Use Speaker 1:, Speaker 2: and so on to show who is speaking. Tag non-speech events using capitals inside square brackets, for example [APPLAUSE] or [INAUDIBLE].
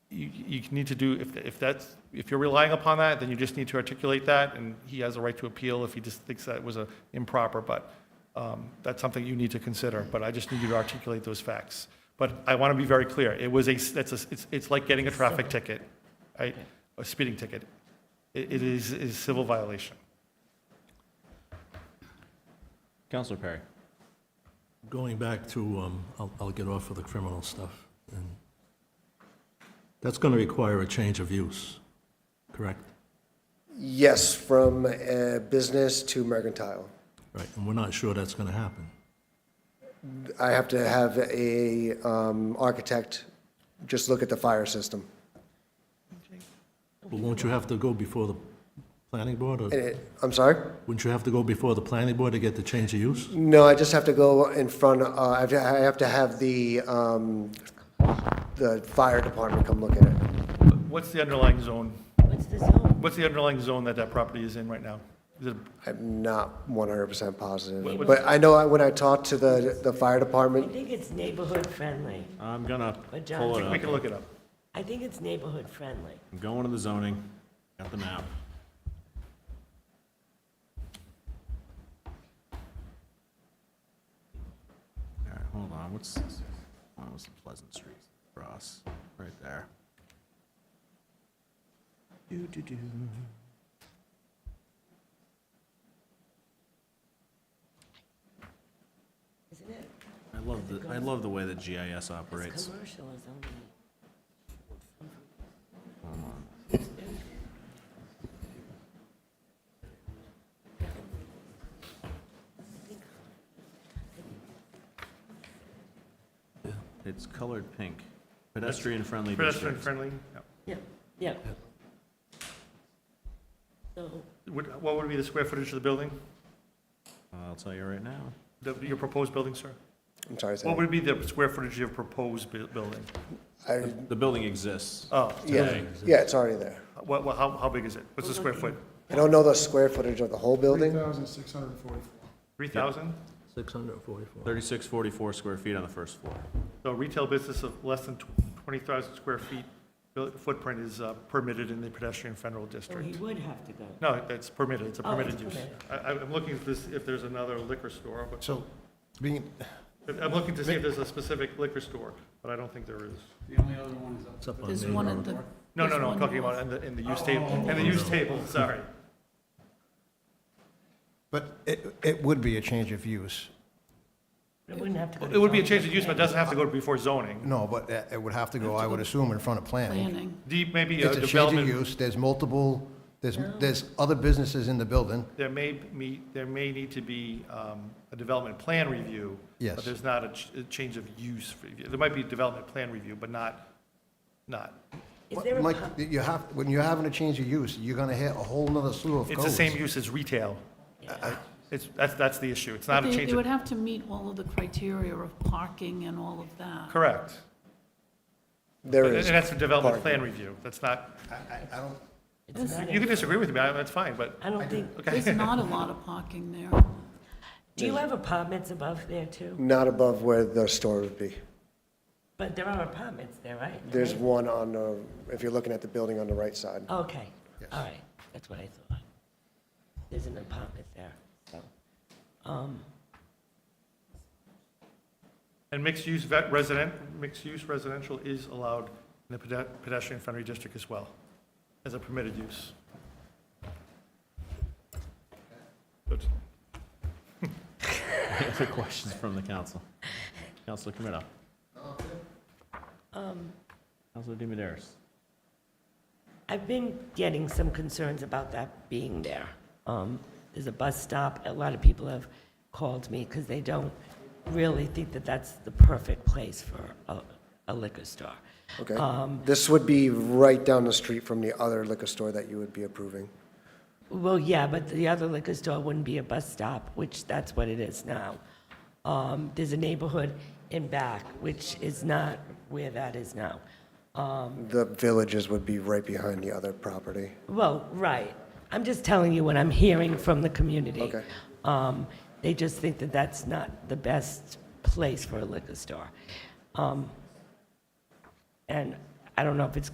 Speaker 1: you need to do, if, if that's, if you're relying upon that, then you just need to articulate that, and he has a right to appeal if he just thinks that was a improper, but um, that's something you need to consider, but I just need you to articulate those facts. But I want to be very clear, it was a, that's a, it's, it's like getting a traffic ticket, right? A speeding ticket. It, it is, is civil violation.
Speaker 2: Counselor Perry.
Speaker 3: Going back to, um, I'll, I'll get off of the criminal stuff. and- That's going to require a change of use, correct?
Speaker 4: Yes, from uh, business to mercantile.
Speaker 3: Right, and we're not sure that's going to happen.
Speaker 4: I have to have a um, architect just look at the fire system.
Speaker 3: But won't you have to go before the planning board, or
Speaker 5: Uh,
Speaker 4: And it- I'm sorry?
Speaker 3: wouldn't you have to go before the planning board to get the change of use?
Speaker 4: No, I just have to go in front, uh, I have to- I have to have the, um, the fire department come look at it.
Speaker 1: What's the underlying zone?
Speaker 6: What's the zone?
Speaker 1: What's the underlying zone that that property is in right now? Is it,
Speaker 4: I'm not 100%
Speaker 1: What-
Speaker 4: positive,
Speaker 1: what-
Speaker 4: but I know I- when I talked to the, the fire
Speaker 6: I
Speaker 4: department,
Speaker 6: think it's neighborhood friendly.
Speaker 2: I'm gonna
Speaker 6: But John-
Speaker 2: pull it
Speaker 1: we
Speaker 2: up.
Speaker 1: can look it up.
Speaker 6: I think it's neighborhood friendly.
Speaker 2: I'm going to the zoning, got the map. All right, hold on, what's, this? oh, it's Pleasant Street, Ross, right there. Doo-doo-doo.
Speaker 6: Isn't it?
Speaker 2: I love the, I love the way that GIS
Speaker 6: It's
Speaker 2: operates.
Speaker 6: commercial is only.
Speaker 2: It's colored pink, pedestrian-friendly
Speaker 1: Uh, Pedestrian
Speaker 2: district.
Speaker 1: friendly?
Speaker 6: Yeah, yeah. So,
Speaker 1: Would- What would be the square footage of the building,
Speaker 2: I'll tell you right now.
Speaker 1: the- your proposed building, sir?
Speaker 4: I'm sorry,
Speaker 1: What
Speaker 4: Sam.
Speaker 1: would be the square footage of your proposed bu- building?
Speaker 4: I-
Speaker 2: The building exists.
Speaker 1: Oh,
Speaker 4: Yeah, yeah, it's already there.
Speaker 1: what, what- how, how big is it? What's the square foot?
Speaker 4: I don't know the square footage of the whole building.
Speaker 7: 3,644.
Speaker 1: 3,000?
Speaker 3: 644.
Speaker 2: Thirty-six forty-four square feet on the first [LAUGHS] floor.
Speaker 1: So retail business of less than tw- 20,000 square feet buil- footprint is uh, permitted in the pedestrian federal
Speaker 6: so Oh, he
Speaker 1: district.
Speaker 6: would have to go.
Speaker 1: No, that's permitted, it's a
Speaker 6: Oh, it's
Speaker 1: permitted use.
Speaker 6: permitted.
Speaker 1: I, I'm looking if this, if there's another liquor store, but,
Speaker 7: So being,
Speaker 1: I'm looking to see if there's a specific liquor store, but I don't think there is.
Speaker 7: the only other one is up
Speaker 3: It's up on
Speaker 5: There's
Speaker 3: Main
Speaker 5: one
Speaker 3: Road.
Speaker 5: at the.
Speaker 1: No, no,
Speaker 5: there's
Speaker 1: no, I'm
Speaker 5: one
Speaker 1: talking
Speaker 5: north.
Speaker 1: about in the, in the use table, in the
Speaker 7: Oh.
Speaker 1: use table, sorry.
Speaker 7: But it, it would be a change of use.
Speaker 6: It wouldn't have to go. to
Speaker 1: It would be a
Speaker 6: zoning.
Speaker 1: change of use, but it doesn't have to go before zoning.
Speaker 7: No, but it it would have to go, I would assume, in front of planning.
Speaker 5: Planning.
Speaker 1: Deep, maybe a
Speaker 7: It's a change of
Speaker 1: development
Speaker 7: use, there's multiple, there's, there's other businesses in the building.
Speaker 1: there may be, there may need to be um, a development plan review. But
Speaker 7: Yes.
Speaker 1: there's not a ch- a change of use review. There might be a development plan review, but not, not.
Speaker 6: Is there a,
Speaker 7: Mike,
Speaker 6: pub-
Speaker 7: you have, when you're having a change of use, you're gonna hit a whole nother slew of
Speaker 1: It's
Speaker 7: codes.
Speaker 1: the same use as retail. It's, that's, that's the issue. It's not a
Speaker 5: They-
Speaker 1: change
Speaker 5: They would
Speaker 1: of,
Speaker 5: have to meet all of the criteria of parking and all of that.
Speaker 1: correct.
Speaker 4: There
Speaker 1: And and
Speaker 4: is.
Speaker 1: that's a development
Speaker 4: parking.
Speaker 1: plan review. That's not,
Speaker 7: I, I- I don't,
Speaker 6: it's not,
Speaker 1: you can
Speaker 6: a-
Speaker 1: disagree with me, I- that's fine, but,
Speaker 6: I don't think,
Speaker 5: There's
Speaker 1: okay.
Speaker 5: not a lot of parking there.
Speaker 1: [LAUGHS]
Speaker 6: do you have apartments above there too?
Speaker 4: Not above where the store would be.
Speaker 6: But there are apartments there, right?
Speaker 4: There's one on, the if you're looking at the building on the right side.
Speaker 6: Okay, all right, that's what I thought. There's an apartment there, so. um,
Speaker 1: And mixed-use vet- resident, mixed-use residential is allowed in the pede- pedestrian-friendly district as well, as a permitted use. Good.
Speaker 2: Other questions from the council? Councilor Camino.
Speaker 6: um,
Speaker 2: Councilor DiMederos.
Speaker 6: I've been getting some concerns about that being there. Um, There's a bus stop, a lot of people have called me because they don't really think that that's the perfect place for a- a liquor store.
Speaker 4: Okay.
Speaker 6: Um,
Speaker 4: This would be right down the street from the other liquor store that you would be approving.
Speaker 6: Well, yeah, but the other liquor store wouldn't be a bus stop, which that's what it is now. Um, There's a neighborhood in back, which is not where that is now.
Speaker 4: The villages would be right behind the other property.
Speaker 6: Well, right. I'm just telling you what I'm hearing from the community.
Speaker 4: Okay.
Speaker 6: Um, They just think that that's not the best place for a liquor store. Um, And I don't know if it's